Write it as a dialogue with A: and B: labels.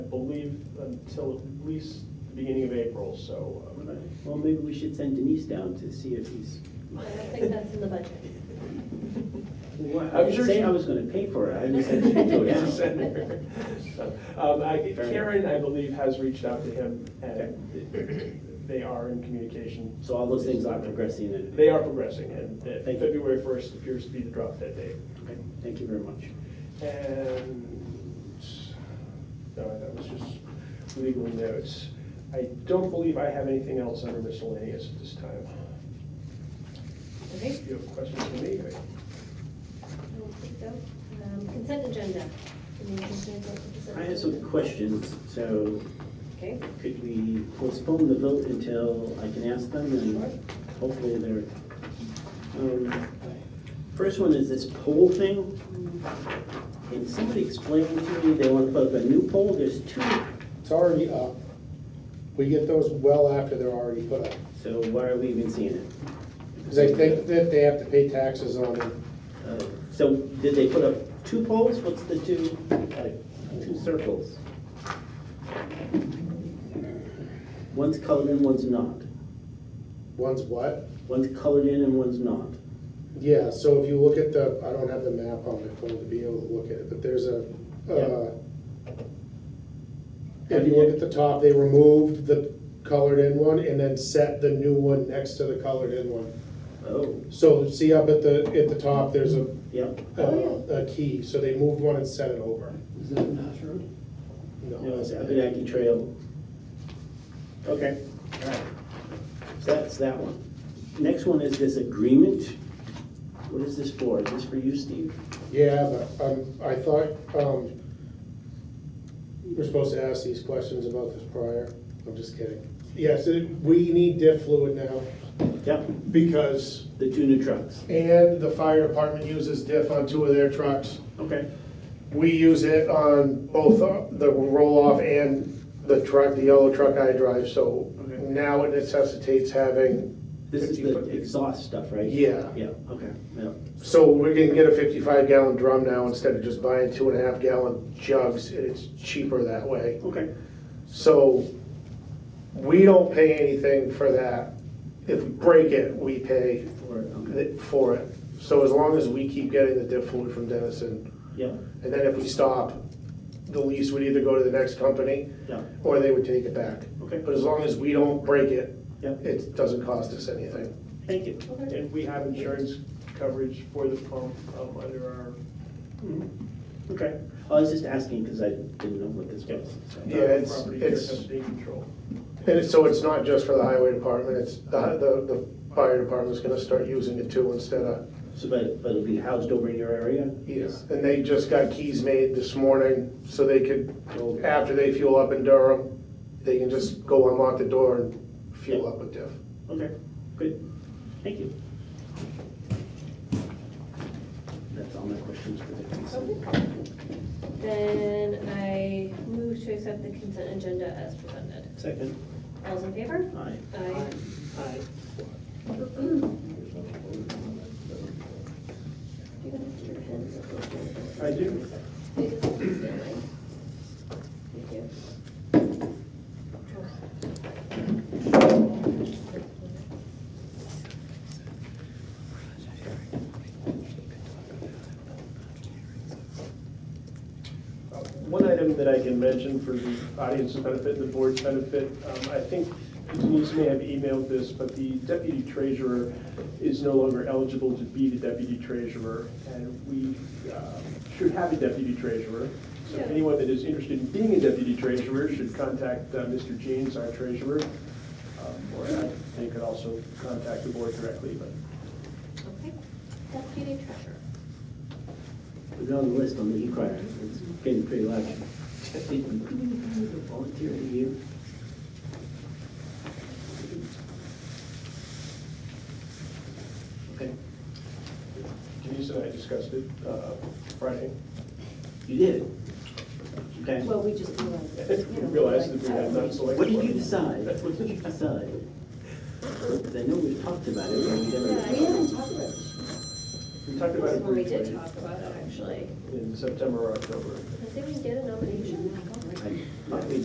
A: believe, until at least the beginning of April, so. um,
B: Well, maybe we should send Denise down to see if he's.
C: I don't think that's in the budget.
B: Well,
A: I'm
B: I didn't
A: sure
B: say
A: she-
B: I was gonna pay for it, I just said she'd go down.
A: Um, I-
B: Fair enough.
A: Karen, I believe, has reached out to him, and they are in communication.
B: So all those things are progressing and.
A: They are progressing, and uh,
B: Thank you.
A: February 1st appears to be the drop dead date.
B: Okay, Thank you very much.
A: And, no, that was just legal notes. I don't believe I have anything else under miscellaneous at this time.
C: Okay,
A: If you have questions for me, I-
C: I will take that. Um, Consent agenda. Any questions on consent
B: I have some
C: agenda?
B: questions, so
C: Okay,
B: could we postpone the vote until I can ask them
C: Sure.
B: and hopefully they're. um, First one is this poll thing. Can somebody explain to me, they want to put up a new poll, there's two,
D: It's already up. We get those well after they're already put up.
B: so why are we even seeing it?
D: Because they think that they have to pay taxes on it.
B: Uh, So did they put up two poles? What's the two, like, two circles? One's colored in, one's not.
D: One's what?
B: One's colored in and one's not.
D: Yeah, so if you look at the, I don't have the map on my phone to be able to look at it, but there's a, uh, if you look at the top, they removed the colored in one and then set the new one next to the colored in one.
B: Oh,
D: So see up at the, at the top, there's a,
B: yep.
C: Oh,
D: a a key, so they moved one and set it over.
E: Is that a Nash Road?
B: No,
D: No,
B: it's Abenaki Trail. Okay, all right. So that's that one. Next one is this agreement. What is this for? Is this for you, Steve?
D: Yeah, but um, I thought, um, we we're supposed to ask these questions about this prior. I'm just kidding. Yes, it- we need diff fluid now
B: Yep,
D: because,
B: the two new trucks.
D: and the fire department uses diff on two of their trucks.
B: Okay.
D: We use it on both uh, the roll-off and the truck, the yellow truck I drive, so
B: Okay.
D: now it necessitates having,
B: This is the
D: 15 foot.
B: exhaust stuff, right?
D: yeah.
B: Yeah, okay, yeah.
D: So we can get a fifty-five gallon drum now instead of just buying two and a half gallon jugs. It's cheaper that way.
B: Okay.
D: So we don't pay anything for that. If we break it, we pay th- for it. So as long as we keep getting the dip fluid from Dennison,
B: Yeah,
D: and then if we stop, the lease would either go to the next company
B: yeah,
D: or they would take it back.
B: okay,
D: But as long as we don't break it,
B: yeah,
D: it doesn't cost us anything.
B: thank you.
C: okay.
A: And we have insurance coverage for the pump um, under our,
B: Mm-hmm. Okay, I was just asking because I didn't know what this was. so.
D: Yeah, it's-
A: property here
D: it's-
A: company control.
D: And it's- so it's not just for the highway department, it's, the, the the fire department's gonna start using it too instead of
B: So, but, but it'll be housed over in your area?
D: Yes, and they just got keys made this morning, so they could, after they fuel up in Durham, they can just go unlock the door and fuel up with Diff.
B: Okay, good, thank you. That's all my questions for the consent.
C: Okay. Then I move to accept the consent agenda as presented.
B: Second,
C: All's in favor?
B: aye.
C: Aye.
A: Aye.
C: Do you have extra pens?
A: I do.
C: They just have to stand by. Thank you.
A: Uh, One item that I can mention for the audience's benefit, the board's benefit, um, I think Denise may have emailed this, but the deputy treasurer is no longer eligible to be the deputy treasurer, and we uh, should have a deputy treasurer. So
C: Yeah.
A: anyone that is interested in being a deputy treasurer should contact uh, Mr. James, our treasurer, um, or I- they could also contact the board directly, but
C: Okay. Deputy treasurer.
B: We're on the list on the e-crier, it's getting pretty large. Did we volunteer to you? Okay,
A: Denise and I discussed it uh, Friday.
B: you did. Okay.
F: Well, we just realized. it, you know,
A: Realized that we
F: like,
A: had not selected.
B: What did
A: one.
B: you decide? What did you decide? 'Cause I know we've talked about it, but we
F: Yeah, we
B: never.
F: haven't talked about it.
A: We talked about it
C: Well, we
A: briefly.
C: did talk about it, actually.
A: in September or October.
C: I think we get a nomination.
B: I- I-